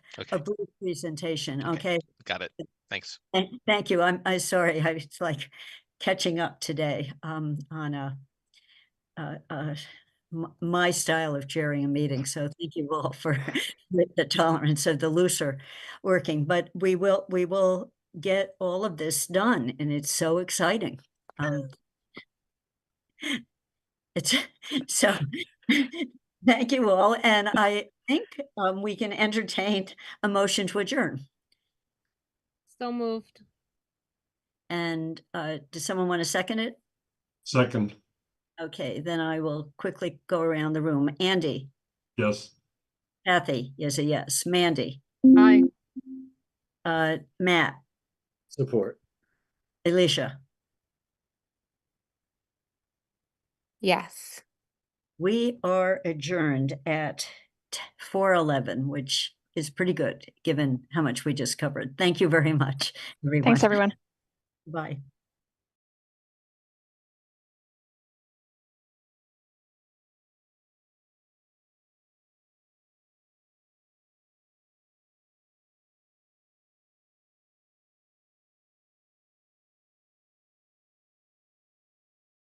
Okay, a brief presentation, okay? got it. Thanks. And thank you. I'm, I'm sorry. I was like catching up today, um, on a, uh, uh, m- my style of chairing a meeting. So thank you all for with the tolerance of the looser working, but we will, we will get all of this done and it's so exciting. Um, it's, so, thank you all. And I think, um, we can entertain a motion to adjourn. So moved. And uh, does someone want to second it? Second, Okay, then I will quickly go around the room. Andy, yes. Kathy is a yes. Mandy, Aye. uh, Matt, Support. Alicia, Yes. we are adjourned at four eleven, which is pretty good given how much we just covered. Thank you very much, everyone. Thanks, everyone. Bye.